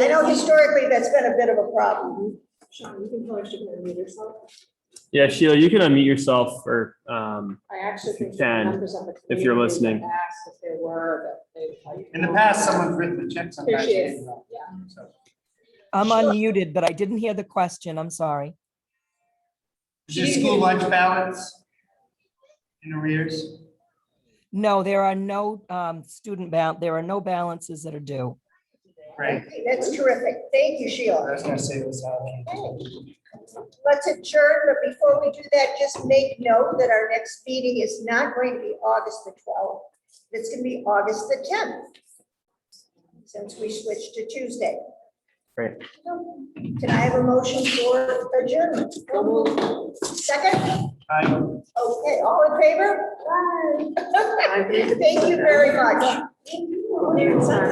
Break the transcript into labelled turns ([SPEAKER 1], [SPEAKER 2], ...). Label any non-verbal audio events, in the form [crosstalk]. [SPEAKER 1] I know historically that's been a bit of a problem.
[SPEAKER 2] Sean, you can probably should unmute yourself.
[SPEAKER 3] Yeah, Sheila, you can unmute yourself or, um,
[SPEAKER 2] I actually think.
[SPEAKER 3] You
[SPEAKER 2] there were
[SPEAKER 3] can,
[SPEAKER 2] members of the
[SPEAKER 3] if
[SPEAKER 2] community
[SPEAKER 3] you're
[SPEAKER 2] that
[SPEAKER 3] listening.
[SPEAKER 2] Asked if there were, but they. like-
[SPEAKER 4] In the past, someone's written the check sometimes.
[SPEAKER 2] Here she is. Yeah.
[SPEAKER 4] So,
[SPEAKER 5] I'm
[SPEAKER 1] Sure.
[SPEAKER 5] unmuted, but I didn't hear the question. I'm sorry.
[SPEAKER 4] Is your school lunch balance in arrears?
[SPEAKER 5] No, there are no um, student bal, there are no balances that are due.
[SPEAKER 4] Great.
[SPEAKER 1] Okay, That's terrific. Thank you,
[SPEAKER 4] I
[SPEAKER 1] Sheila.
[SPEAKER 4] was uh, gonna say this out.
[SPEAKER 1] Let's adjourn, but before we do that, just make note that our next meeting is not going to be August the twelfth. It's going to be August the tenth, since we switched to Tuesday.
[SPEAKER 3] Great.
[SPEAKER 1] Can I have a motion for adjournment? Second?
[SPEAKER 4] Aye.
[SPEAKER 1] Okay, all in [laughs] favor? Thank you very much.